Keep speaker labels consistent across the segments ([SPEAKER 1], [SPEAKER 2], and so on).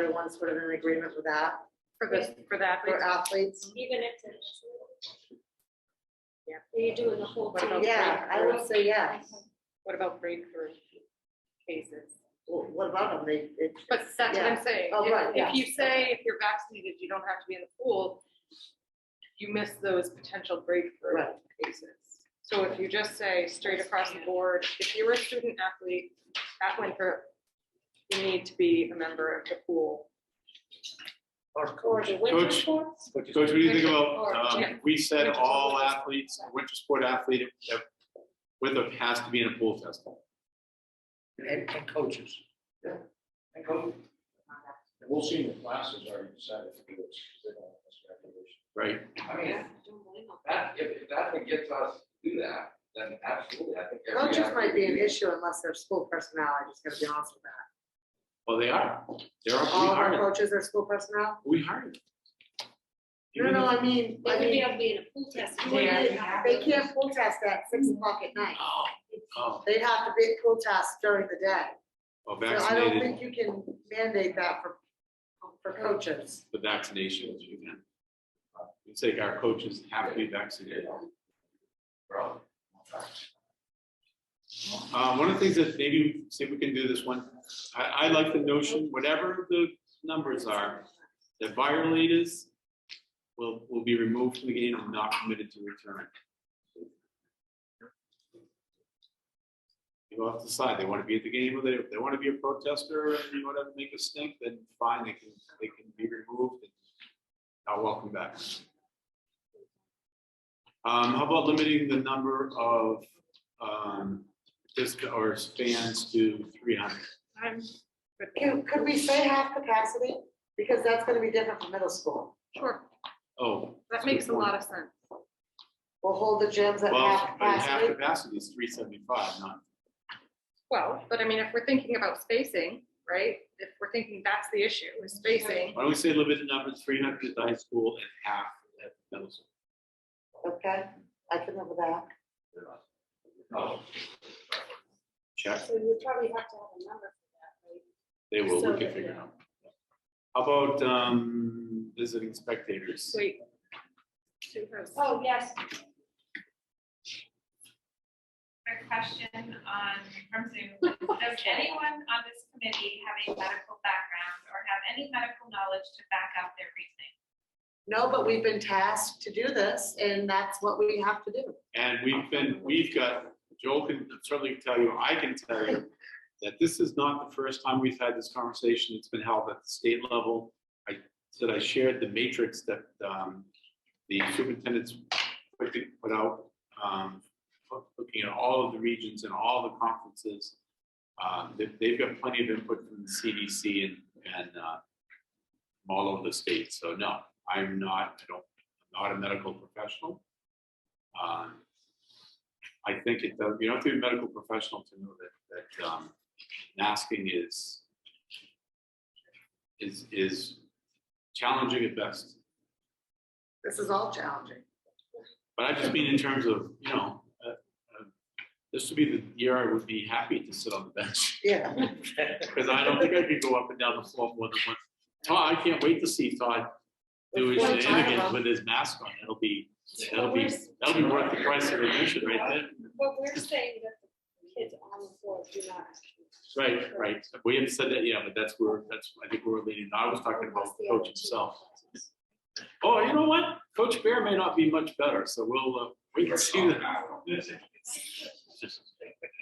[SPEAKER 1] everyone's sort of in agreement with that
[SPEAKER 2] For this, for that,
[SPEAKER 1] for athletes.
[SPEAKER 3] Even if it's.
[SPEAKER 2] Yeah.
[SPEAKER 3] You're doing the whole
[SPEAKER 2] What
[SPEAKER 3] thing.
[SPEAKER 2] about
[SPEAKER 1] Yeah, I would say yes.
[SPEAKER 2] what about breakthrough cases?
[SPEAKER 1] Well, What about them? They, it,
[SPEAKER 2] But that's what I'm saying.
[SPEAKER 1] Oh,
[SPEAKER 2] If-
[SPEAKER 1] right, yeah.
[SPEAKER 2] If you say if you're vaccinated, you don't have to be in the pool, you miss those potential breakthrough
[SPEAKER 1] right,
[SPEAKER 2] cases. So if you just say straight across the board, if you're a student athlete at Winthrop, you need to be a member of the pool.
[SPEAKER 4] Or
[SPEAKER 3] Or the winter
[SPEAKER 5] Coach.
[SPEAKER 3] sports.
[SPEAKER 5] Coach, what do you think
[SPEAKER 3] Or-
[SPEAKER 5] about,
[SPEAKER 2] yeah.
[SPEAKER 5] um, we said
[SPEAKER 2] Winter
[SPEAKER 5] all
[SPEAKER 2] sport.
[SPEAKER 5] athletes, winter sport athlete, if- with a has to be in a pool test.
[SPEAKER 4] And, and coaches. Yeah. And coaches. And We'll see in the classes are decided to do this. they don't have this graduation.
[SPEAKER 5] right?
[SPEAKER 6] I mean, that, if, if that's what gets us to do that, then absolutely, I think. every
[SPEAKER 1] coaches might be an
[SPEAKER 6] athlete-
[SPEAKER 1] issue unless they're school personnel, I'm just gonna be honest with that.
[SPEAKER 5] Well, they are. They're, we
[SPEAKER 1] All of our
[SPEAKER 5] hired, them.
[SPEAKER 1] coaches are school personnel?
[SPEAKER 5] we hired. them.
[SPEAKER 1] No,
[SPEAKER 5] Even
[SPEAKER 1] no,
[SPEAKER 5] if-
[SPEAKER 1] I mean,
[SPEAKER 3] They
[SPEAKER 1] I
[SPEAKER 3] would be
[SPEAKER 1] mean,
[SPEAKER 3] able to be in a pool test.
[SPEAKER 1] you wouldn't- they can't pool test at six o'clock at night.
[SPEAKER 5] Oh, oh,
[SPEAKER 1] They'd have to be at pool test during the day.
[SPEAKER 5] oh,
[SPEAKER 1] So I don't
[SPEAKER 5] vaccinated,
[SPEAKER 1] think you can mandate that for, for coaches.
[SPEAKER 5] the vaccinations, you can. You say our coaches have to be vaccinated.
[SPEAKER 6] Bro.
[SPEAKER 5] Um, one of the things that maybe, see if we can do this one, I, I like the notion, whatever the numbers are, that violators will, will be removed from the game and not permitted to return. You have to decide, they want to be at the game, or they, they want to be a protester, and you want to make a stink, then fine, they can, they can be removed and not welcome back. Um, how about limiting the number of, um, just, or fans to three hundred?
[SPEAKER 2] I'm good.
[SPEAKER 1] Can, could we say half capacity? Because that's gonna be different from middle school.
[SPEAKER 2] Sure,
[SPEAKER 5] Oh.
[SPEAKER 2] that makes a lot of sense.
[SPEAKER 1] We'll hold the gyms at half
[SPEAKER 5] Well, but half
[SPEAKER 1] capacity.
[SPEAKER 5] capacity is three seventy-five, not
[SPEAKER 2] Well, but I mean, if we're thinking about spacing, right, if we're thinking that's the issue, is spacing,
[SPEAKER 5] Why don't we say limited number, three hundred at high school and half at middle school?
[SPEAKER 1] Okay, I can live with that.
[SPEAKER 6] No,
[SPEAKER 5] Check,
[SPEAKER 3] So you would probably have to have a number for that, right?
[SPEAKER 5] they will,
[SPEAKER 3] So
[SPEAKER 5] we can
[SPEAKER 3] that-
[SPEAKER 5] figure it out. How about, um, visiting spectators?
[SPEAKER 2] wait. Two hosts.
[SPEAKER 7] Oh, yes. Quick question on, from Zoom. Does anyone on this committee have a medical background or have any medical knowledge to back up their reasoning?
[SPEAKER 1] No, but we've been tasked to do this and that's what we have to do.
[SPEAKER 5] And we've been, we've got, Joel can certainly tell you, I can tell you, that this is not the first time we've had this conversation. It's been held at the state level. I said I shared the matrix that um, the superintendents put put out, um, looking at all of the regions and all the conferences. Um, they- They've got plenty of input from the CDC and, and uh, from all over the state. So no, I'm not, I don't, I'm not a medical professional. Um, I think it does, you don't have to be a medical professional to know that, that, um, masking is, is, is challenging at best.
[SPEAKER 1] This is all challenging.
[SPEAKER 5] But I just mean in terms of, you know, uh, uh, this would be the year I would be happy to sit on the bench,
[SPEAKER 1] Yeah.
[SPEAKER 5] because I don't think I could go up and down the floor more than once. Todd, I can't wait to see Todd do his
[SPEAKER 1] Before
[SPEAKER 5] shenanigans
[SPEAKER 1] Tyra.
[SPEAKER 5] with his mask on, it'll be, that'll
[SPEAKER 3] But
[SPEAKER 5] be,
[SPEAKER 3] we're s-
[SPEAKER 5] that'll be worth the price of admission right there.
[SPEAKER 3] But we're saying that the kids on the floor do not.
[SPEAKER 5] Right, right. We haven't said that, yeah, but that's where, that's, I think we're leading. I was talking about the coach himself. Oh, you know what? Coach Bear may not be much better, so we'll, uh, we can see that.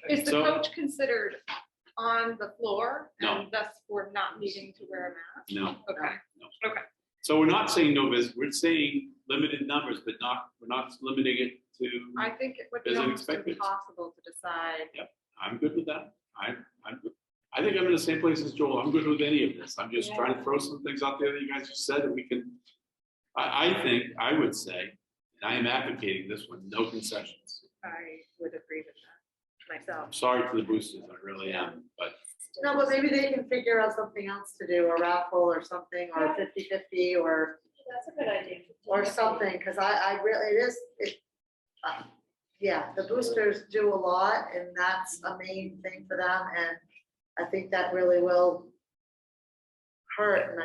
[SPEAKER 2] Is the
[SPEAKER 5] So-
[SPEAKER 2] coach considered on the floor?
[SPEAKER 5] No.
[SPEAKER 2] And thus we're not needing to wear
[SPEAKER 5] No,
[SPEAKER 2] a mask? Okay,
[SPEAKER 5] so we're not saying no visit, we're saying limited numbers, but not, we're not limiting it
[SPEAKER 2] I
[SPEAKER 5] to,
[SPEAKER 2] think it would be
[SPEAKER 5] As
[SPEAKER 2] almost
[SPEAKER 5] expected.
[SPEAKER 2] impossible to decide.
[SPEAKER 5] I'm good with that. I, I'm, good. I think I'm in the same place as Joel. I'm good with any of this. I'm just trying to throw some things out there that you guys just said that we can. I, I think, I would say, and I am advocating this one, no concessions.
[SPEAKER 2] I would agree with that myself.
[SPEAKER 5] I'm sorry for the boosters, I really am, but
[SPEAKER 1] No, but maybe they can figure out something else to do, a raffle or something, or a 50 or,
[SPEAKER 3] That's a good idea.
[SPEAKER 1] or something, because I, I really, it is, it. uh, Yeah, the boosters do a lot and that's a main thing for them and I think that really will hurt and I